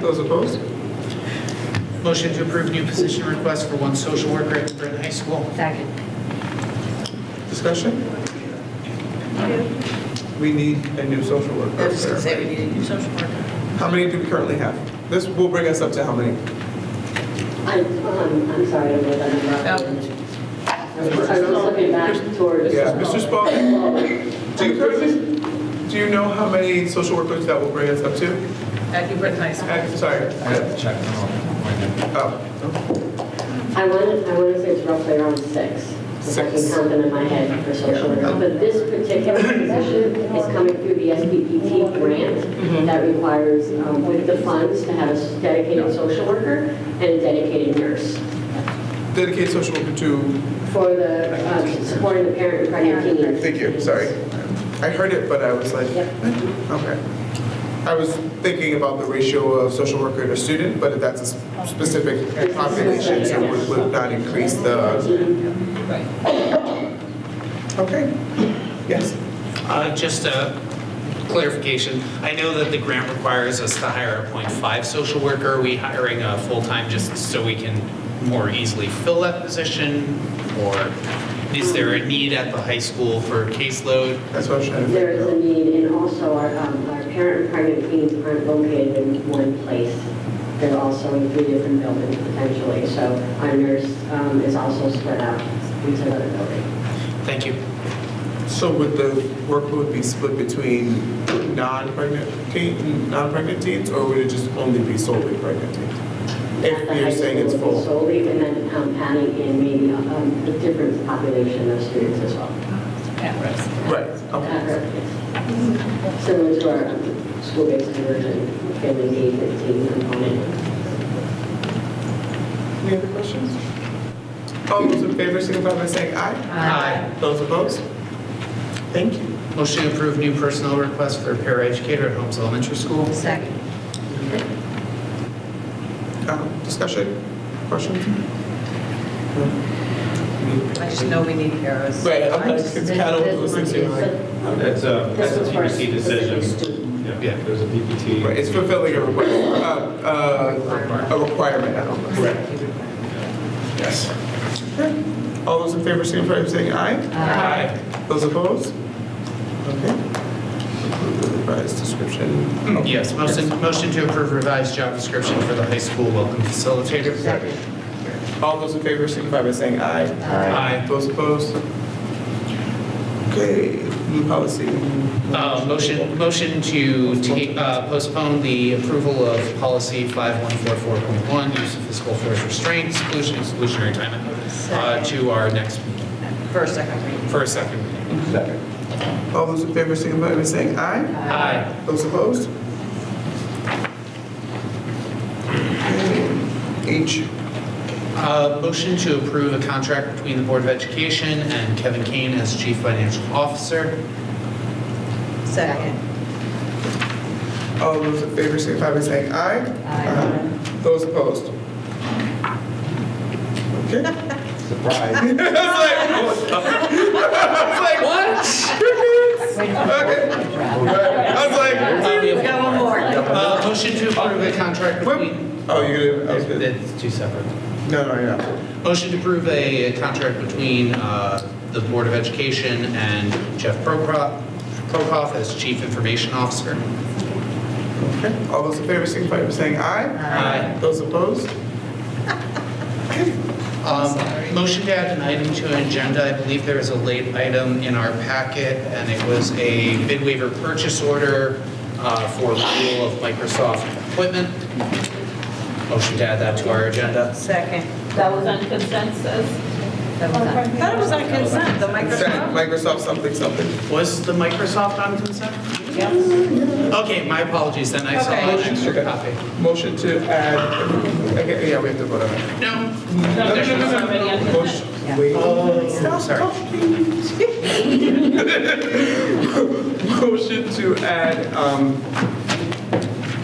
Those opposed? Motion to approve new position request for one social worker at Brent High School. Second. Discussion? We need a new social worker. I was just gonna say, we need a new social worker. How many do we currently have? This will bring us up to how many? I'm, um, I'm sorry, I'm not, I'm not. I was looking back towards. Yeah, Mr. Spalding? Do you currently, do you know how many social workers that will bring us up to? At New Britain Uh, High School. I'm sorry. uh, I have to check them out. Oh, I want, I want to say it's roughly around six. If I can Six. count them in my head for social worker. But this particular position is coming through the SPPT Mm-hmm. grant that requires, um, with the funds, to have a dedicated social worker and a dedicated nurse dedicate social worker to, for the, um, supporting the parent and pregnant teens. thank you, sorry. I heard it, but I was like, Yep. okay. I was thinking about the ratio of social worker to student, but that's a s- specific population, so it would- would not increase the, okay. Yes, Uh, Just a clarification. I know that the grant requires us to hire a .5 social worker. Are we hiring a full-time just so we can more easily fill that position? Or is there a need at the high school for caseload? that's what I was trying to figure out. There is a need, and also our, um, our parent and pregnant teams aren't located in one place. They're also in three different buildings potentially, so our nurse, um, is also spread out into another building. Thank you. So would the workload be split between non-pregnant teen, non-pregnant teens, or would it just only be solely pregnant teens? If The you're high saying it's school would be full, Solely, and then, um, adding in maybe, um, a different population of students as well. right? At Okay. risk. Similar to our um, school-based conversion, family engagement team component. Any other questions? All those in favor, signify by saying aye. Aye. Those opposed? Thank you. Motion to approve new personnel request for a paraeducator at Holmes Elementary School. Second. Um, Discussion, questions? I just know we need paras. Right, I'm I like, just- it's kind of this- listening this to one like, is- That's a, that's This a was for a PPT specific decision. student. Yeah, uh, there's a PPT. right, it's fulfilling a requirement, a requirement, I don't know. Correct. Yes. All those in favor, signify by saying aye. Aye. Those opposed? Okay. Approve the Revised description. Okay. Yes, motion, motion to approve revised job description for the high school welcome facilitator. Second. All those in favor, signify by saying aye. Uh, Aye. Those opposed? Okay, new policy. Uh, Motion, motion to ta- uh, postpone the approval of policy 5144.1, use of physical force restraint, exclusion, exclusionary time, uh, to our next, For a second reading. for a second reading. All those in favor, signify by saying aye. Aye. Those opposed? Okay, H, Uh, Motion to approve a contract between the Board of Education and Kevin Kane as Chief Financial Officer. Second. all those in favor, signify by saying aye. Aye. Those opposed? Okay. Surprise. It's like, it's like, what? Okay. I was like, We've got one more. Uh, Motion to approve a contract whoop. between, Oh, you're gonna, I was good. it's two separate. No, no, you're not. Motion to approve a contract between uh, the Board of Education and Jeff Prokop Prokop as Chief Information Officer. Okay. All those in favor, signify by saying aye. Aye. Those opposed? Um, Motion to add an item to an agenda. I believe there is a late item in our packet, and it was a bid waiver purchase order uh, for renewal of Microsoft equipment. Motion to add that to our agenda. Second. That was on consensus. That was on- Thought it was on consent, the Consent, Microsoft. Microsoft something, something. Was the Microsoft on consent? Okay, my apologies, then I saw an Okay. extra copy. Motion to add, okay, yeah, we have to vote on it. No, No, there's already on consent. Motion- wait. Stop talking. Motion to add, um,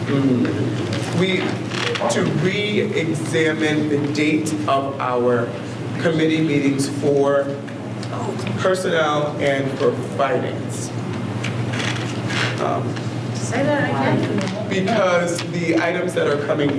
mm, we, to re-examine the date of our committee meetings for personnel and for finance. Um, Say that again. Because the items that are coming